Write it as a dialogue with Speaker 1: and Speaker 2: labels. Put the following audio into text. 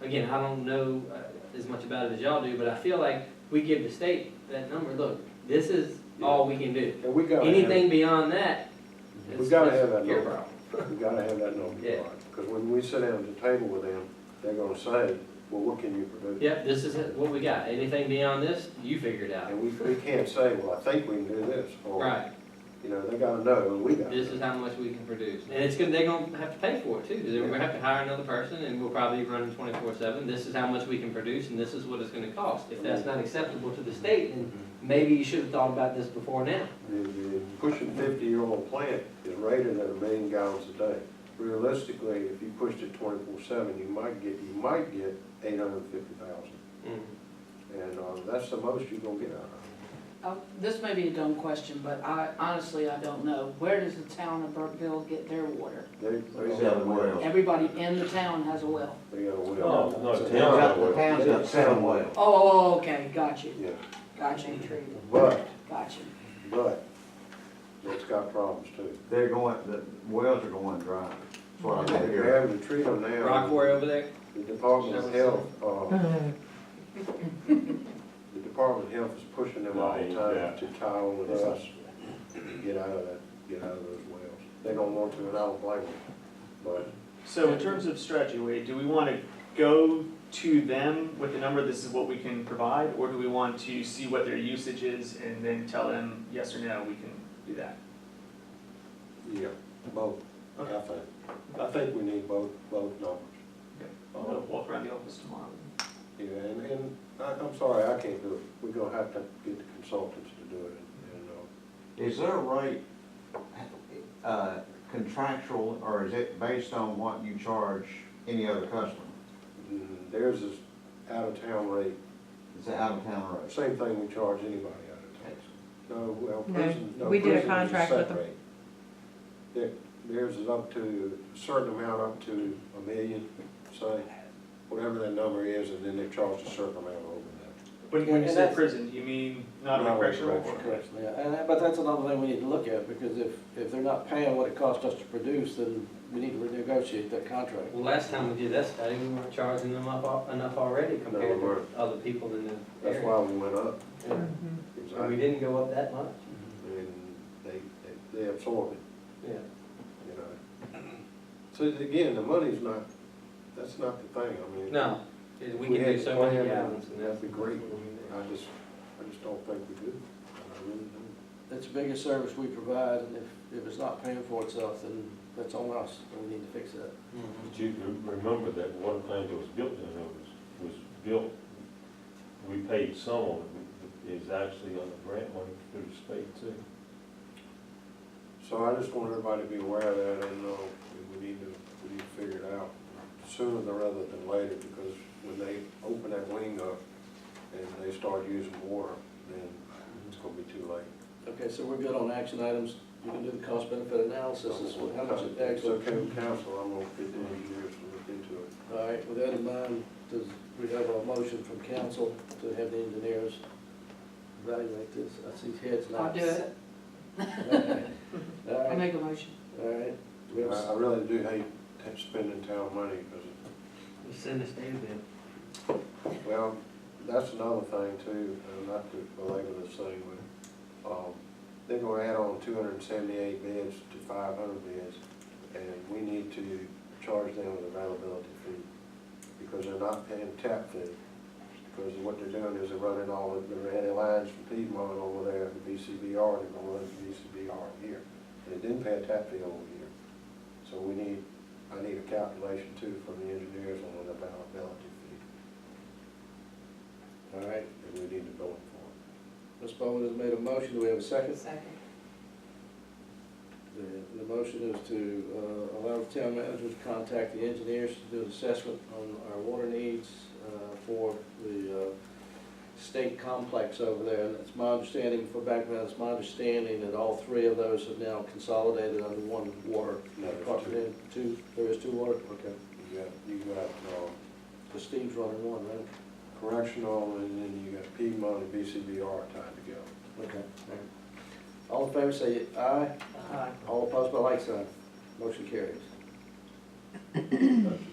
Speaker 1: again, I don't know uh, as much about it as y'all do, but I feel like we give the state that number, look, this is all we can do.
Speaker 2: And we gotta have,
Speaker 1: Anything beyond that
Speaker 2: We
Speaker 1: is
Speaker 2: gotta have that
Speaker 1: is your
Speaker 2: number.
Speaker 1: problem.
Speaker 2: we gotta have that
Speaker 1: Yeah.
Speaker 2: number, because when we sit down at the table with them, they're gonna say, well, what can you produce?
Speaker 1: Yep, this is it, what we got. Anything beyond this, you figure it out.
Speaker 2: And we, we can't say, well, I think we can do this, or,
Speaker 1: Right,
Speaker 2: you know, they gotta know, and we gotta
Speaker 1: this is
Speaker 2: know.
Speaker 1: how much we can produce. And it's gonna, they're gonna have to pay for it too, because we're gonna have to hire another person and we'll probably run them twenty-four seven. This is how much we can produce and this is what it's gonna cost. If that's not acceptable to the state, then maybe you should have thought about this before now.
Speaker 2: The, the pushing fifty-year-old plant is rated at a million gallons a day. Realistically, if you pushed it twenty-four seven, you might get, you might get eight hundred and fifty thousand, Mm-hmm. and, uh, that's the most you're gonna get out of
Speaker 3: Uh, This may be a dumb question, but I, honestly, I don't know. Where does the town of Burkeville get their water?
Speaker 2: it. They,
Speaker 4: He's
Speaker 2: they
Speaker 4: got a
Speaker 2: got a well.
Speaker 4: well.
Speaker 3: Everybody in the town has a well.
Speaker 2: They got a
Speaker 4: No,
Speaker 2: well.
Speaker 4: no,
Speaker 2: It's a
Speaker 4: town's got-
Speaker 2: town
Speaker 4: the
Speaker 2: well.
Speaker 4: town's got seven wells.
Speaker 3: Oh, Oh, oh, okay, got you,
Speaker 2: Yeah,
Speaker 3: got you,
Speaker 2: but,
Speaker 3: got you.
Speaker 2: but, it's got problems too.
Speaker 4: They're going, the wells are going dry. That's what I
Speaker 2: They're
Speaker 4: think here.
Speaker 2: having to treat them now.
Speaker 1: Rockaway over there?
Speaker 2: The Department of Health, uh, the Department of Health is pushing them all the time to tie on with us, to get out of that, get out of those wells. They don't want to, and I don't blame them, but
Speaker 5: So in terms of strategy, Wade, do we want to go to them with the number, this is what we can provide? Or do we want to see what their usage is and then tell them, yes or no, we can do that?
Speaker 2: Yeah, both, I
Speaker 5: Okay.
Speaker 2: think. I think we need both, both numbers. Uh,
Speaker 5: I'll go walk around the office tomorrow.
Speaker 2: Yeah, and, and I, I'm sorry, I can't do it. We're gonna have to get the consultants to do it and, and, uh,
Speaker 4: Is their rate uh, contractual or is it based on what you charge any other customer?
Speaker 2: mm, theirs is out of town rate.
Speaker 4: Is it out of town rate?
Speaker 2: Same thing we charge anybody out of town. No, well,
Speaker 6: No,
Speaker 2: prison, no,
Speaker 6: we did a
Speaker 2: prison is
Speaker 6: contract with them.
Speaker 2: separate. Their- Theirs is up to, a certain amount up to a million, say, whatever that number is, and then they charge a certain amount over that.
Speaker 5: But when
Speaker 7: And
Speaker 5: you say
Speaker 7: that's-
Speaker 5: prison, you mean not a
Speaker 2: Not a
Speaker 5: correctional?
Speaker 2: correctional.
Speaker 5: or-
Speaker 7: Correction, yeah, and that, but that's another thing we need to look at, because if, if they're not paying what it cost us to produce, then we need to renegotiate that contract.
Speaker 1: Well, last time we did that study, we weren't charging them up al- enough already compared
Speaker 2: we
Speaker 1: to
Speaker 2: weren't.
Speaker 1: other people in the
Speaker 2: That's
Speaker 1: area.
Speaker 2: why we went up.
Speaker 1: And we
Speaker 2: Exactly.
Speaker 1: didn't go up that much.
Speaker 2: And they, they- they absorbed it,
Speaker 1: Yeah.
Speaker 2: you know. So again, the money's not, that's not the thing, I mean.
Speaker 1: No, we
Speaker 2: We
Speaker 1: can
Speaker 2: had
Speaker 1: do so many
Speaker 2: planned,
Speaker 1: gallons and that's.
Speaker 2: that'd be great.
Speaker 1: what we did.
Speaker 2: I just, I just don't think we do. I really don't.
Speaker 7: It's the biggest service we provide, and if, if it's not paying for itself, then that's on us, and we need to fix that.
Speaker 2: Mm-hmm.
Speaker 1: Mhm.
Speaker 8: But you re- remember that one thing that was built in those was built, we paid some of it, is actually on the grant money through the state too.
Speaker 2: So I just want everybody to be aware of that and, uh, we- we need to, we need to figure it out sooner than rather than later, because when they open that wing up and they start using water, then it's gonna be too late.
Speaker 7: Okay, so we're good on action items, you can do the cost benefit analysis, is what, how much it
Speaker 2: It's
Speaker 7: actually.
Speaker 2: okay with council, I'm gonna get them years to look into it.
Speaker 7: All right, with that in mind, does, we have a motion from council to have the engineers evaluate this, I see heads nods.
Speaker 3: I'll do it.
Speaker 7: All
Speaker 3: I
Speaker 7: right,
Speaker 3: make a motion.
Speaker 7: all right, we have a
Speaker 2: I, I really do hate t- spending town money, because,
Speaker 1: We send a state bill.
Speaker 2: well, that's another thing too, and not to belabor this thing, but, um, they're gonna add on two hundred and seventy-eight beds to five hundred beds. and we need to charge them with availability fee, because they're not paying tap fee. Because what they're doing is they're running all of the red lines from Piedmont over there to VCBR, they're gonna run to VCBR here. They didn't pay a tap fee over here. So we need, I need a calculation too from the engineers on an availability fee,
Speaker 7: All right,
Speaker 2: and we need to bill them
Speaker 7: Ms. Bowman has made a motion, do we have a second?
Speaker 3: Second.
Speaker 7: The, the motion is to, uh, allow the town manager to contact the engineers to do an assessment on our water needs, uh, for the, uh, state complex over there, and it's my understanding, for background, it's my understanding that all three of those have now consolidated under one water
Speaker 2: No, there's
Speaker 7: department. Two, there is two water, okay,
Speaker 2: for it. You got, you got, um,
Speaker 7: the Steve's running one, right?
Speaker 2: correctional, and then you got Piedmont and VCBR tied together.
Speaker 7: Okay. all right. All in favor, say aye,
Speaker 3: Aye.
Speaker 7: all opposed by like sign, motion carries.
Speaker 2: That's